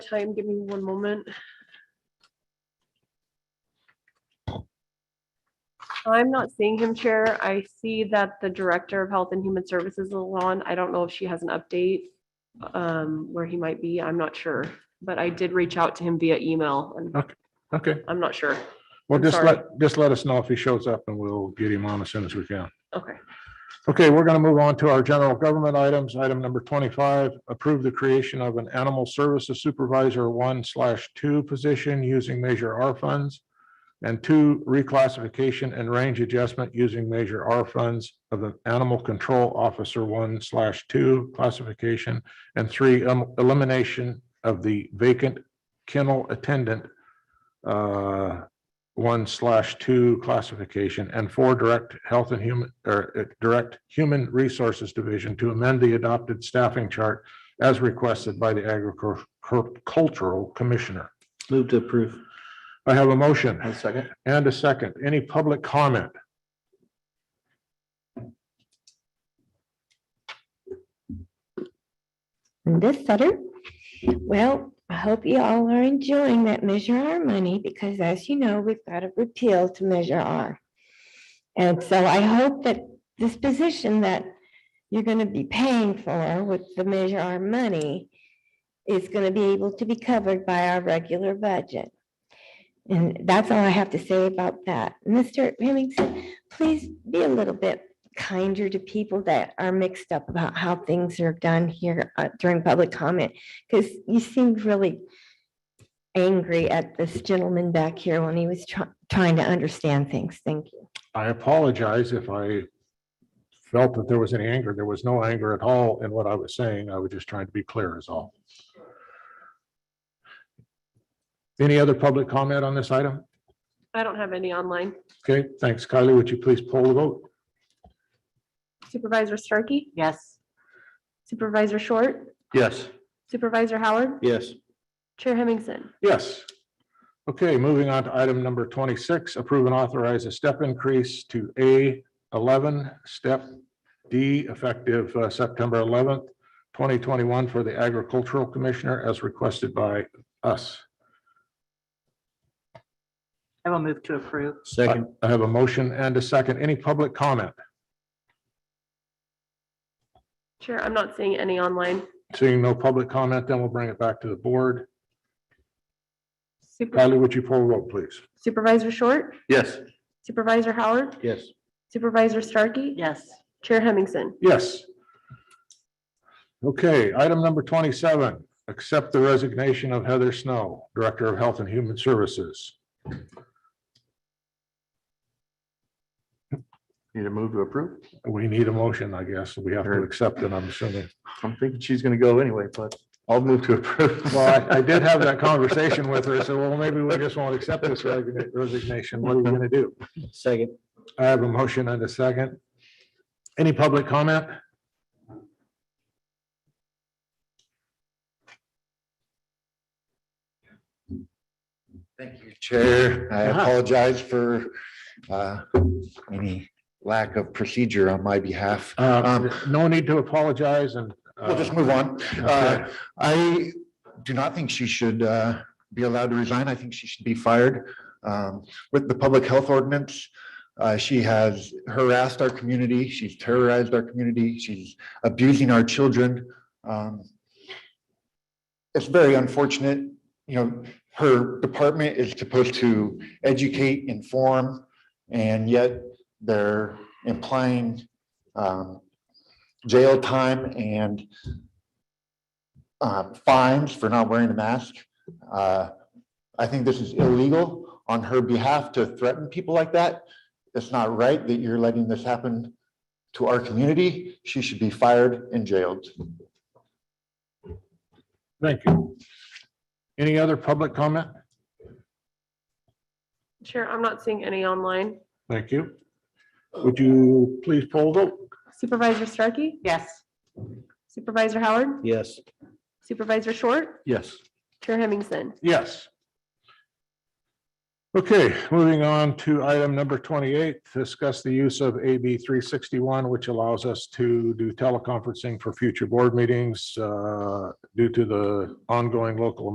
time. Give me one moment. I'm not seeing him, Chair. I see that the Director of Health and Human Services is on. I don't know if she has an update um, where he might be. I'm not sure, but I did reach out to him via email and Okay, I'm not sure. well, I'm just sorry. let, just let us know if he shows up and we'll get him on as soon as we can. Okay. Okay, we're going to move on to our general government items. Item number twenty-five, approve the creation of an animal services supervisor one slash two position using Measure R funds. And two, reclassification and range adjustment using Measure R funds of the animal control officer one slash two classification. And three, um, elimination of the vacant kennel attendant uh, one slash two classification and four direct health and human or uh, direct human resources division to amend the adopted staffing chart as requested by the agricultural commissioner. Move to approve. I have a motion I'll second. and a second. Any public comment? Linda Sutter. Well, I hope you all are enjoying that Measure R money because as you know, we've got a repeal to Measure R. And so I hope that this position that you're going to be paying for with the Measure R money is going to be able to be covered by our regular budget. And that's all I have to say about that. Mr. Hemmingson, please be a little bit kinder to people that are mixed up about how things are done here uh, during public comment, because you seemed really angry at this gentleman back here when he was try- trying to understand things. Thank you. I apologize if I felt that there was any anger. There was no anger at all in what I was saying. I was just trying to be clear is all. Any other public comment on this item? I don't have any online. Okay, thanks. Kylie, would you please poll the vote? Supervisor Starkey? Yes. Supervisor Short? Yes. Supervisor Howard? Yes. Chair Hemmingson? Yes. Okay, moving on to item number twenty-six, approve and authorize a step increase to A eleven, step D, effective uh, September eleventh, twenty twenty-one for the agricultural commissioner as requested by us. I will move to approve. I Second. I have a motion and a second. Any public comment? Chair, I'm not seeing any online. Seeing no public comment, then we'll bring it back to the board. Super- Kylie, would you poll the vote, please? Supervisor Short? Yes. Supervisor Howard? Yes. Supervisor Starkey? Yes, Chair Hemmingson? Yes. Okay, item number twenty-seven, accept the resignation of Heather Snow, Director of Health and Human Services. Need a move to approve? We need a motion, I guess. We have to accept it, I'm assuming. I'm thinking she's gonna go anyway, but I'll move to approve. Well, I I did have that conversation with her, so well, maybe we just won't accept this resign- resignation. What are we gonna do? Second. I have a motion and a second. Any public comment? Thank you, Chair. I Uh-huh. apologize for uh, any lack of procedure on my behalf. Uh, No need to apologize and. uh, Um, We'll just move on. okay. Uh, I do not think she should uh, be allowed to resign. I think she should be fired. Um, With the public health ordinance, uh, she has harassed our community. She's terrorized our community. She's abusing our children. Um, It's very unfortunate, you know, her department is supposed to educate, inform, and yet they're implying um, jail time and uh, fines for not wearing a mask. Uh, I think this is illegal on her behalf to threaten people like that. It's not right that you're letting this happen to our community. She should be fired and jailed. Thank you. Any other public comment? Chair, I'm not seeing any online. Thank you. Would you please poll vote? Supervisor Starkey? yes, Supervisor Howard? Yes. Supervisor Short? Yes. Chair Hemmingson? Yes. Okay, moving on to item number twenty-eight, discuss the use of AB three sixty-one, which allows us to do teleconferencing for future board meetings uh, due to the ongoing local